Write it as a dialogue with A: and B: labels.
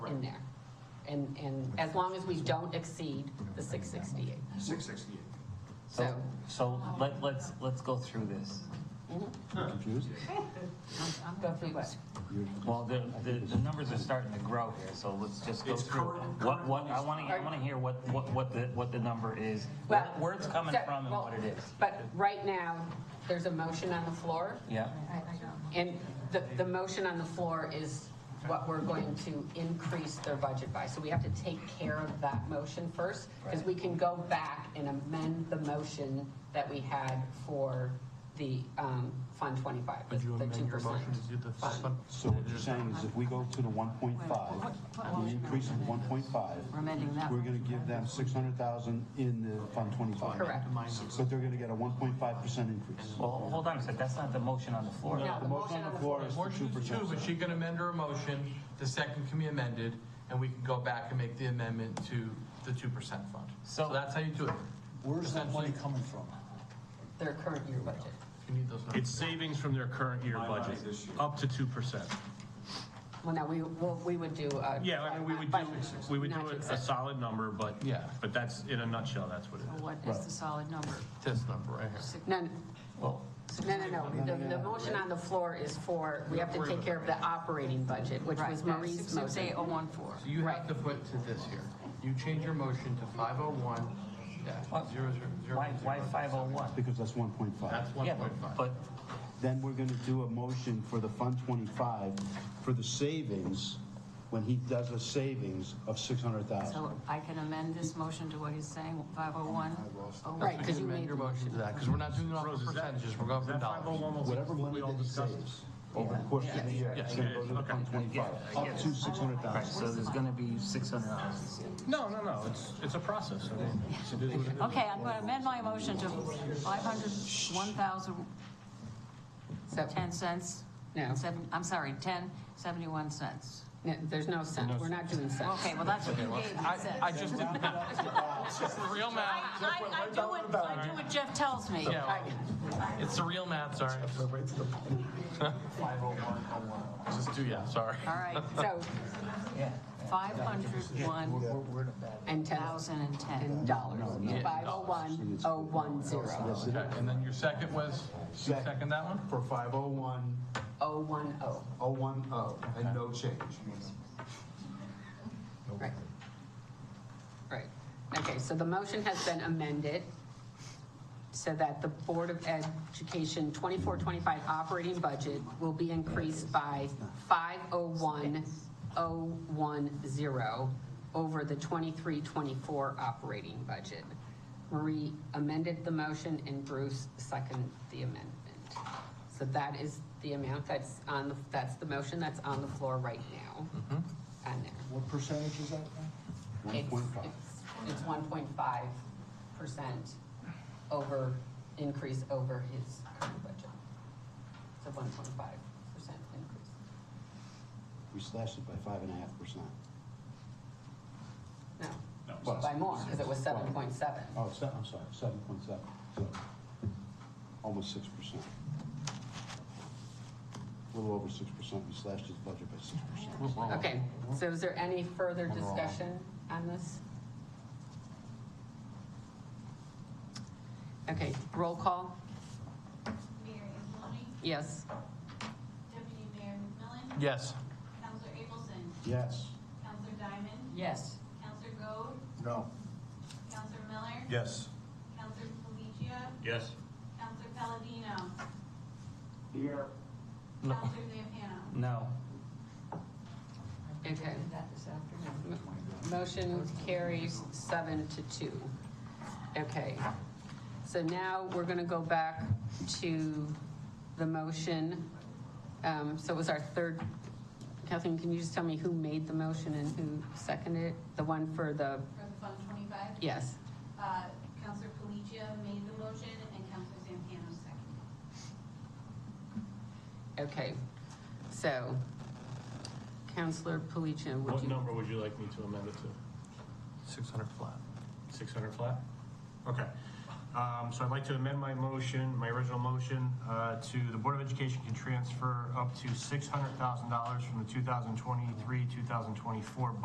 A: in there. And, and as long as we don't exceed the 668.
B: Six sixty-eight.
A: So,
C: So let, let's, let's go through this.
D: Confused?
A: go through what?
C: Well, the, the, the numbers are starting to grow here, so let's just go
B: It's
C: through.
B: current-
C: What, what, I want to, I want to hear what, what, what the, what the number is,
A: Well,
C: where it's coming
A: so-
C: from and
A: well,
C: what it is.
A: But right now, there's a motion on the floor,
C: Yeah,
A: and the, the motion on the floor is what we're going to increase their budget by. So we have to take care of that motion first, because we can go back and amend the motion that we had for the um, Fund 25, the
E: Would you
A: the
E: amend your
A: 2%.
E: motion to do the
A: fund.
E: fund?
D: So what you're saying is if we go to the one point five, the increase of one point five,
F: amending that
D: we're gonna give them six hundred thousand in the fund twenty-five.
A: Correct.
D: But they're gonna get a one point five percent increase.
C: well, hold on a sec, that's not the motion on the floor.
A: No,
D: The motion on the floor is for two
E: Motion is two,
D: percent.
E: but she can amend her motion, the second can be amended, and we can go back and make the amendment to the two percent fund. So
C: So-
E: that's how you do it.
G: Where's that money
E: Essentially,
G: coming from?
A: Their current year budget.
E: If you need those numbers.
H: It's savings from their current year
B: My money
H: budget,
B: this year.
H: up to 2%.
A: Well, no, we, well, we would do a.
H: Yeah, I mean, we would do, we would
A: Not
H: do
A: to
H: a- a
A: accept.
H: solid number, but,
E: Yeah.
H: but that's, in a nutshell, that's what it is.
F: What is the solid number?
E: This number right here.
A: No, no,
C: Well,
A: no, no, no. the, the motion on the floor is for, we have to take care of the operating budget, which was Marie's motion.
F: oh, 68014.
E: So you
A: Right.
E: have to put to this here. You change your motion to five oh one,
C: What?
E: yeah, zero, zero, zero.
C: why, why 501?
D: Because that's one point five.
E: That's one
C: Yeah,
E: point
C: but,
E: five.
C: but
D: Then we're gonna do a motion for the fund twenty-five for the savings, when he does a savings of six hundred thousand.
F: So I can amend this motion to what he's saying, oh, 501?
A: Right, because you
E: Amend
A: made,
E: your motion to that, because we're not doing it off
H: Rose,
E: the
H: is that,
E: percentages, we're going
H: is
E: for
H: that
E: dollars.
H: 501
D: Whatever money
H: we all
D: that he
H: discussed?
D: saves over the course of the year, it's gonna go to the fund twenty-five, up to six hundred
C: Right,
D: thousand.
C: so there's gonna be six hundred dollars.
H: No, no, no, it's, it's a process. I mean, it's- it is what it is.
F: Okay, I'm going to amend my motion to 501,010
A: so,
F: cents.
A: No.
F: Seven, I'm sorry, 1071 cents.
A: no, there's no sense, we're not doing sense.
F: Okay, well, that's what you gave me,
E: I, I
F: cents.
E: just did It's the real
F: I,
E: math.
F: I, I do what, I do what Jeff tells me.
E: Yeah, well, it's the real math, sorry. Just do, yeah, sorry.
F: All right,
A: So,
C: Yeah.
F: 501,010.
A: and ten, and dollars, five oh one, oh one zero,
E: Okay, and then your second was, you
B: Second.
E: second that one?
B: For five oh one,
A: oh one oh,
B: oh one oh, and no change.
A: right. Right, okay, so the motion has been amended so that the Board of Education 24-25 operating budget will be increased by five oh one, oh one zero over the 23-24 operating budget. Marie amended the motion and Bruce seconded the amendment. So that is the amount that's on, the that's the motion that's on the floor right now. On there.
G: What percentage is that?
A: It's,
D: 1.5.
A: it's, it's one point five percent over, increase over his current budget. It's a one point five percent increase.
D: We slashed it by five and a half percent.
A: No, by more, because it was seven point seven.
D: Oh, se- I'm sorry, seven point seven, so, almost six percent. A little over six percent, we slashed his budget by six percent.
A: Okay, so is there any further discussion on this? Okay, roll call,
I: Mayor Angeloni,
A: yes.
I: Deputy Mayor McMillan,
E: Yes.
I: Counselor Abelson,
D: Yes.
I: Counselor Diamond,
F: Yes.
I: Counselor Goad,
D: No.
I: Counselor Miller,
B: Yes.
I: Counselor Pelagia,
H: Yes.
I: Counselor Palladino. Here. Counselor Zampano.
C: No.
A: Okay. Motion carries seven to two. Okay. So now we're going to go back to the motion. Um, So it was our third, Kathleen, can you just tell me who made the motion and who seconded it? The one for the,
I: For the Fund 25,
A: yes.
I: uh, Counselor Pelagia made the motion and Counselor Zampano seconded.
A: Okay. So Counselor Palicia, would
H: What
A: you?
H: number would you like me to amend it to?
E: Six hundred flat.
H: 600 flat? Okay. Um, So I'd like to amend my motion, my original motion, uh, to the Board of Education can transfer up to $600,000 from the 2023-2024